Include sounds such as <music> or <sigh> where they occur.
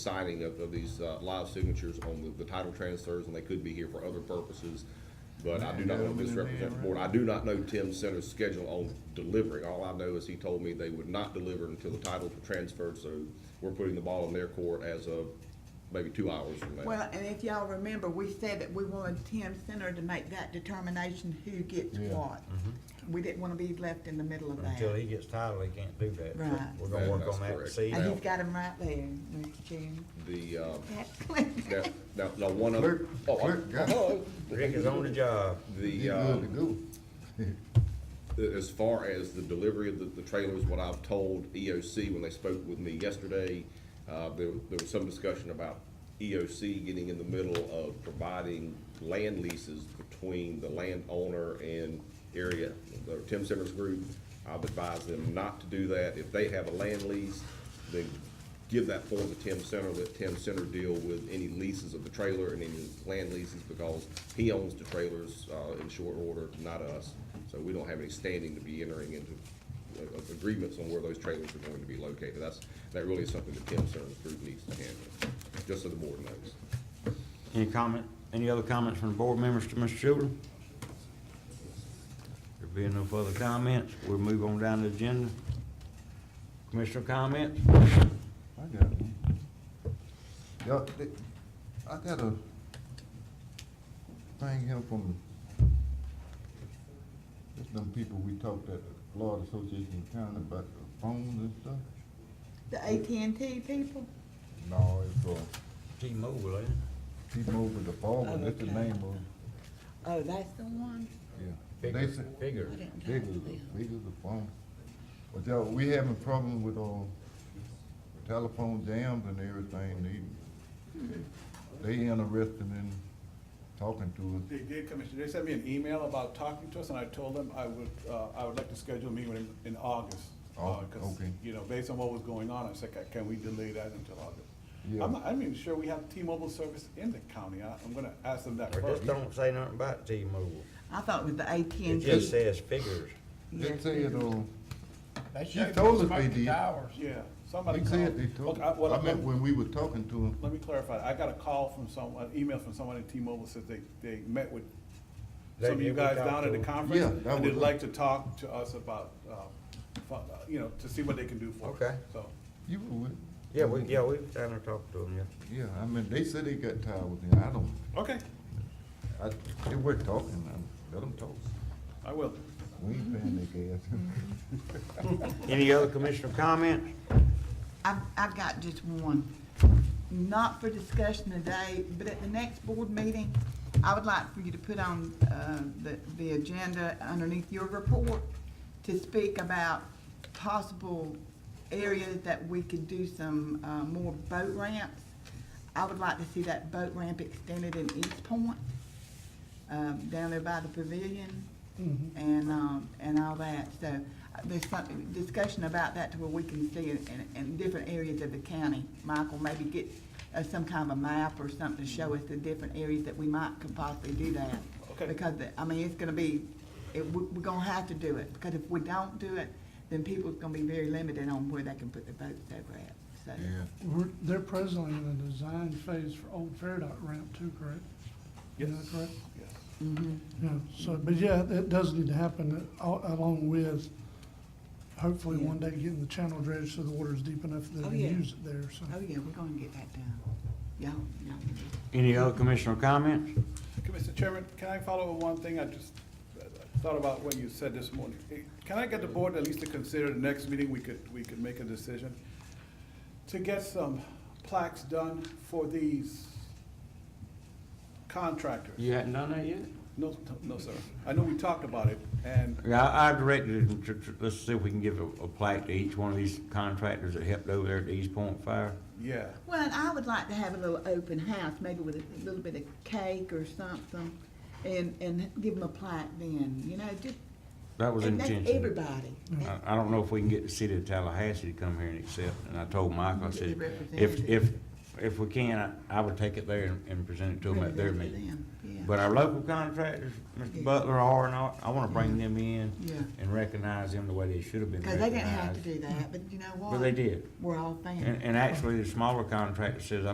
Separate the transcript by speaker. Speaker 1: signing of, of these uh, live signatures on the, the title transfers, and they could be here for other purposes. But I do not want to misrepresent the board. I do not know Tim Center's schedule on delivering. All I know is he told me they would not deliver until the titles were transferred, so we're putting the ball in their court as of maybe two hours from now.
Speaker 2: Well, and if y'all remember, we said that we wanted Tim Center to make that determination who gets
Speaker 3: Yeah. Mm-hmm.
Speaker 2: what. We didn't wanna be left in the middle of
Speaker 3: Until
Speaker 2: that.
Speaker 3: he gets title, he can't do that. So
Speaker 2: Right.
Speaker 3: We're gonna work
Speaker 1: That's
Speaker 3: on that
Speaker 1: correct.
Speaker 3: this evening.
Speaker 2: And Uh, he's got him right there, Mr. Chairman. <laughs>
Speaker 1: The, uh,
Speaker 2: That's clear.
Speaker 1: now, now, now one other.
Speaker 4: Clerk,
Speaker 1: oh, I-
Speaker 4: clerk, got it.
Speaker 1: oh,
Speaker 3: Rick is on the job.
Speaker 1: The,
Speaker 4: You
Speaker 1: uh,
Speaker 4: good to go.
Speaker 1: as far as the delivery of the, the trailers, what I've told EOC when they spoke with me yesterday, uh, there, there was some discussion about EOC getting in the middle of providing land leases between the landowner and area, the Tim Simmons Group. I've advised them not to do that. If they have a land lease, then give that form to Tim Center, let Tim Center deal with any leases of the trailer and any land leases, because he owns the trailers, uh, in short order, not us. So we don't have any standing to be entering into uh, uh, agreements on where those trailers are going to be located. That's, that really is something that Tim Center's group needs to handle, just so the board knows.
Speaker 5: Any comment, any other comments from the board members to Mr. Children? There being no further comments, we'll move on down the agenda. Commissioner comments?
Speaker 4: I got it. Y'all, th- I got a thing here from, just them people we talked at the Florida Association of County about the phones and stuff.
Speaker 2: The AT&T people?
Speaker 4: No, it's, uh,
Speaker 3: T-Mobile, ain't it?
Speaker 4: T-Mobile, the former, that's the
Speaker 2: Okay.
Speaker 4: name of, it.
Speaker 2: Oh, that's the one?
Speaker 4: yeah. They
Speaker 3: Bigger,
Speaker 4: said-
Speaker 3: bigger.
Speaker 2: I didn't
Speaker 4: Big
Speaker 2: know
Speaker 4: as
Speaker 2: them.
Speaker 4: a, big as a phone. But y'all, we having problems with, uh, telephone jams and everything,
Speaker 2: Hmm.
Speaker 4: they, they interested in talking to us.
Speaker 6: They did, Commissioner, they sent me an email about talking to us, and I told them I would, uh, I would like to schedule a meeting with them in August. uh,
Speaker 4: Oh,
Speaker 6: 'cause,
Speaker 4: okay.
Speaker 6: You know, based on what was going on, I said, "Ca- can we delay that until August?
Speaker 4: Yeah.
Speaker 6: I'm, not- I'm even sure we have T-Mobile service in the county, I, I'm gonna ask them that
Speaker 3: Or just
Speaker 6: first.
Speaker 3: don't say nothing about T-Mobile.
Speaker 2: I thought it was the AT&T.
Speaker 3: It just says figures.
Speaker 4: They
Speaker 2: Yes.
Speaker 4: said, uh,
Speaker 7: They
Speaker 4: He
Speaker 7: shut
Speaker 4: told us
Speaker 7: most
Speaker 4: they
Speaker 7: of the
Speaker 4: did.
Speaker 7: towers.
Speaker 6: Yeah, somebody
Speaker 4: they
Speaker 6: called.
Speaker 4: said they told,
Speaker 6: Okay, I- well,
Speaker 4: I
Speaker 6: I'm-
Speaker 4: meant when we were talking to them,
Speaker 6: Let me clarify, I got a call from someone, an email from someone at T-Mobile says they, they met with
Speaker 3: They
Speaker 6: some of you
Speaker 3: did, we
Speaker 6: guys
Speaker 3: talked
Speaker 6: down at
Speaker 3: to
Speaker 6: the
Speaker 3: them.
Speaker 6: conference.
Speaker 4: Yeah, that
Speaker 6: And
Speaker 4: was
Speaker 6: they'd
Speaker 4: us.
Speaker 6: like to talk to us about, uh, fu- uh, you know, to see what they can do for us.
Speaker 3: Okay.
Speaker 6: So,
Speaker 4: you were with.
Speaker 3: Yeah, we, yeah, we was down there talking to him, yeah.
Speaker 4: Yeah, I mean, they said they got tired with me, I don't,
Speaker 6: okay,
Speaker 4: I, they were talking, I let them talk.
Speaker 6: I will.
Speaker 4: We ain't paying their
Speaker 2: Mm-hmm.
Speaker 4: gas. <laughs>
Speaker 5: Any other commissioner comments?
Speaker 2: I've, I've got just one, not for discussion today, but at the next board meeting, I would like for you to put on, uh, the, the agenda underneath your report to speak about possible areas that we could do some, uh, more boat ramps. I would like to see that boat ramp extended in East Point, um, down there by the pavilion and, um, and all that. So uh, there's some discussion about that to where we can see it in, in different areas of the county. Michael, maybe get uh, some kind of a map or something to show us the different areas that we might could possibly do that.
Speaker 6: Okay.
Speaker 2: Because, the- I mean, it's gonna be, it, we, we're gonna have to do it, because if we don't do it, then people's gonna be very limited on where they can put their boats over at, so.
Speaker 4: Yeah,
Speaker 7: We're, they're presently in the design phase for Old Fairdock ramp too, correct? Is that
Speaker 6: Yes.
Speaker 7: correct?
Speaker 6: Yes.
Speaker 7: Yeah, so, but yeah, that does need to happen a- along with, hopefully one day getting the channel dredged so the water's deep enough that
Speaker 2: Oh,
Speaker 7: they can
Speaker 2: yeah.
Speaker 7: use it there, so.
Speaker 2: Oh, yeah, we're gonna get that done. Y'all, y'all. can do it.
Speaker 5: Any other commissioner comments?
Speaker 6: Mr. Chairman, can I follow up one thing? I just uh, thought about what you said this morning. Eh, Can I get the board at least to consider the next meeting, we could, we could make a decision? To get some plaques done for these contractors?
Speaker 5: You hadn't done that yet?
Speaker 6: No, no, sir. I know we talked about it, and
Speaker 5: Yeah, I I directed him to, to- let's see if we can give a, a plaque to each one of these contractors that helped over there at the East Point Fire.
Speaker 6: Yeah,
Speaker 2: Well, and I would like to have a little open house, maybe with a little bit of cake or something, and, and give them a plaque then, you know, just.
Speaker 5: That was
Speaker 2: and that's
Speaker 5: intentional.
Speaker 2: Everybody.
Speaker 5: I, I don't know if we can get the city of Tallahassee to come here and accept, and I told Michael, I
Speaker 2: Get the
Speaker 5: said, if, if, if we can, I, I would take it there and, and present it to them at their
Speaker 2: Bring it to
Speaker 5: meeting.
Speaker 2: them, yeah.
Speaker 5: But our local contractors,
Speaker 2: Yeah.
Speaker 5: Mr. Butler, R and R, I wanna bring them in
Speaker 2: Yeah.
Speaker 5: and recognize them the way they should have been
Speaker 2: Cause they didn't have to
Speaker 5: recognized.
Speaker 2: do that, but you know what?
Speaker 5: But they did.
Speaker 2: We're all fans.
Speaker 5: And, and actually, the smaller contractor says,